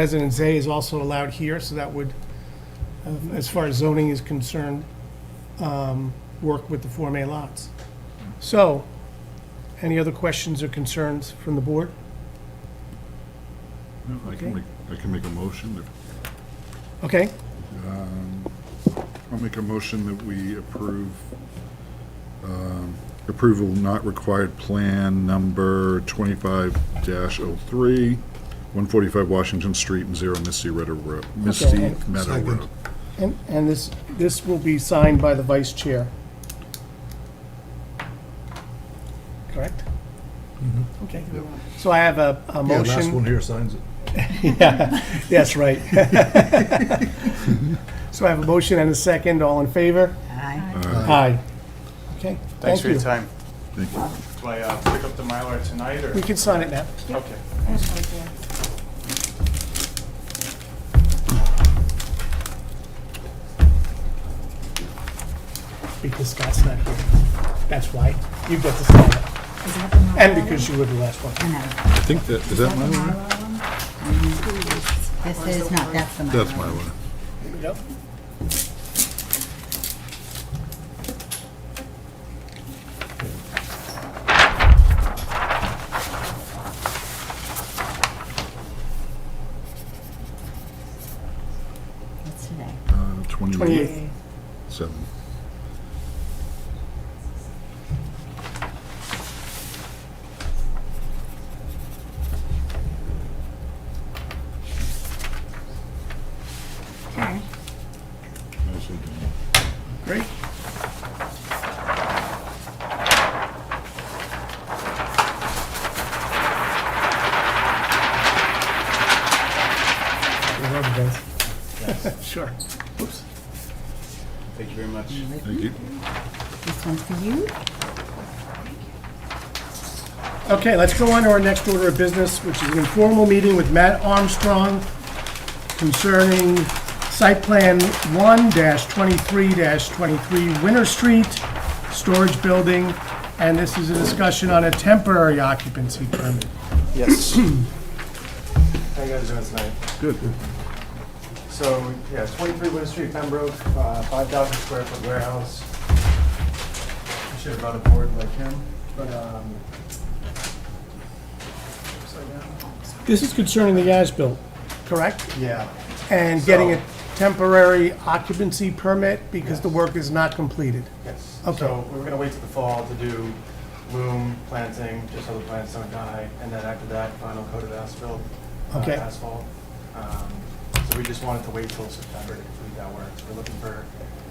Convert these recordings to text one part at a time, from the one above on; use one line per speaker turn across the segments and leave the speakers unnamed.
Residence A is also allowed here, so that would, um, as far as zoning is concerned, um, work with the Form A lots. So, any other questions or concerns from the board?
No, I
Okay.
can make, I can make a motion. if-
Okay,
I'll make a motion that we approve um, approval not required plan number 25-03, 145 Washington Street and 0 Misty Meadow Road, Misty
Okay.
Meadow
Second.
Road.
and, and this, this will be signed by the vice chair. Correct? Okay. So I have a, a
Mm-hmm. Yeah,
motion.
last one here signs it.
Yes, right. So I have a motion and a second, all in favor?
Aye.
Aye. Okay, thank
Thanks for your
you.
time.
Thank you.
Do I uh, pick up the Mylar tonight, or?
We can sign it now.
Okay.
Because Scott's not here. That's why. You get to sign it. And because you were the last one.
I think that, is that my one?
This is not, that's the Mylar.
That's my one.
Yep.
That's today.
Uh,
28th.
7.
Okay.
Nicely done.
Great. You're welcome, guys. Sure. Oops.
Thank you very much.
Thank you.
This one's for you.
Okay, let's go on to our next order of business, which is an informal meeting with Matt Armstrong concerning site plan one twenty-three twenty-three Winter Street, storage building, and this is a discussion on a temporary occupancy permit.
Yes. How you guys doing tonight?
Good.
So, yeah, 23 Winter Street, Pembroke, uh, 5,000 square foot warehouse. I should have brought a board like him, but, um... upside down.
This is concerning the as-built, correct?
Yeah,
And getting a temporary occupancy permit because the work is not completed.
yes.
Okay.
So we were gonna wait till the fall to do loom planting, just so the plants don't die, and then after that, final coated asphalt. uh,
Okay.
Asphalt. Um, So we just wanted to wait till September to complete that work. So We're looking for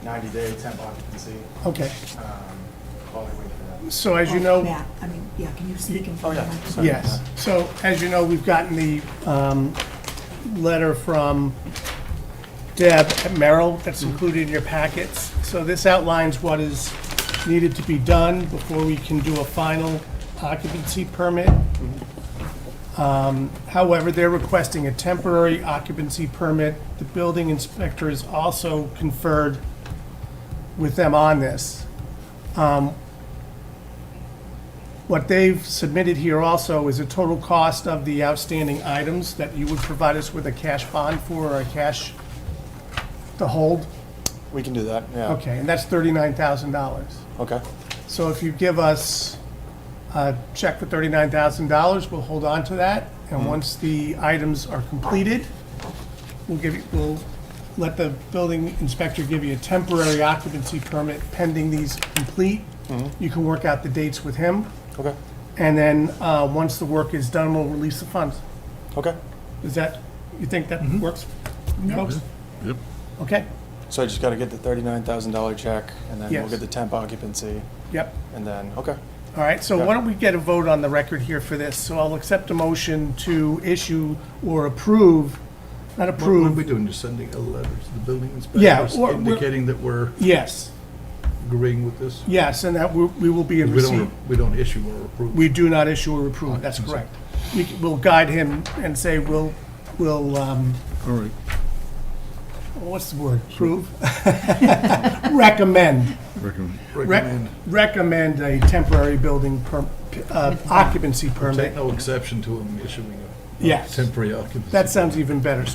90-day temp occupancy,
Okay,
um, while we wait for that.
so as you know.
Yeah, Oh, I mean, yeah, can you speak in
Oh,
front of
yeah.
them?
Sorry.
Yes, so as you know, we've gotten the um, letter from Deb at Merrill that's included in your packets. So this outlines what is needed to be done before we can do a final occupancy permit. Um, However, they're requesting a temporary occupancy permit. The building inspector has also conferred with them on this what they've submitted here also is a total cost of the outstanding items that you would provide us with a cash bond for or a cash to hold.
We can do that, yeah.
Okay, and that's thirty-nine thousand dollars.
Okay.
So if you give us a check for thirty-nine thousand dollars, we'll hold on to that. And once the items are completed, we'll give, you- we'll let the building inspector give you a temporary occupancy permit pending these complete. You can work out the dates with him.
Okay.
And then, uh, once the work is done, we'll release the funds.
Okay.
Is that, you think that
Mm-hmm.
works? folks?
Yep.
Okay,
So I just got to get the thirty-nine thousand dollar check, and then we'll
Yes.
get the temp occupancy,
yep.
and then okay.
All right, so why don't we get a vote on the record here for this? So I'll accept a motion to issue or approve, not
What what are we
approve,
doing, just sending a letter to the building
Yeah,
inspectors
or we're-
indicating that we're
yes,
agreeing with this?
yes, and that we- we will be in
We
receipt.
don't, we don't issue or approve.
We do not issue or approve, that's correct. We c- We'll guide him and say, we'll, we'll, um,
All right.
what's the word? Approve? Recommend.
Recommend.
Rec-
Recommend,
recommend a temporary building per, uh, occupancy
take
permit.
no exception to them issuing a
Yes,
Temporary occupancy. uh,
that sounds even better. So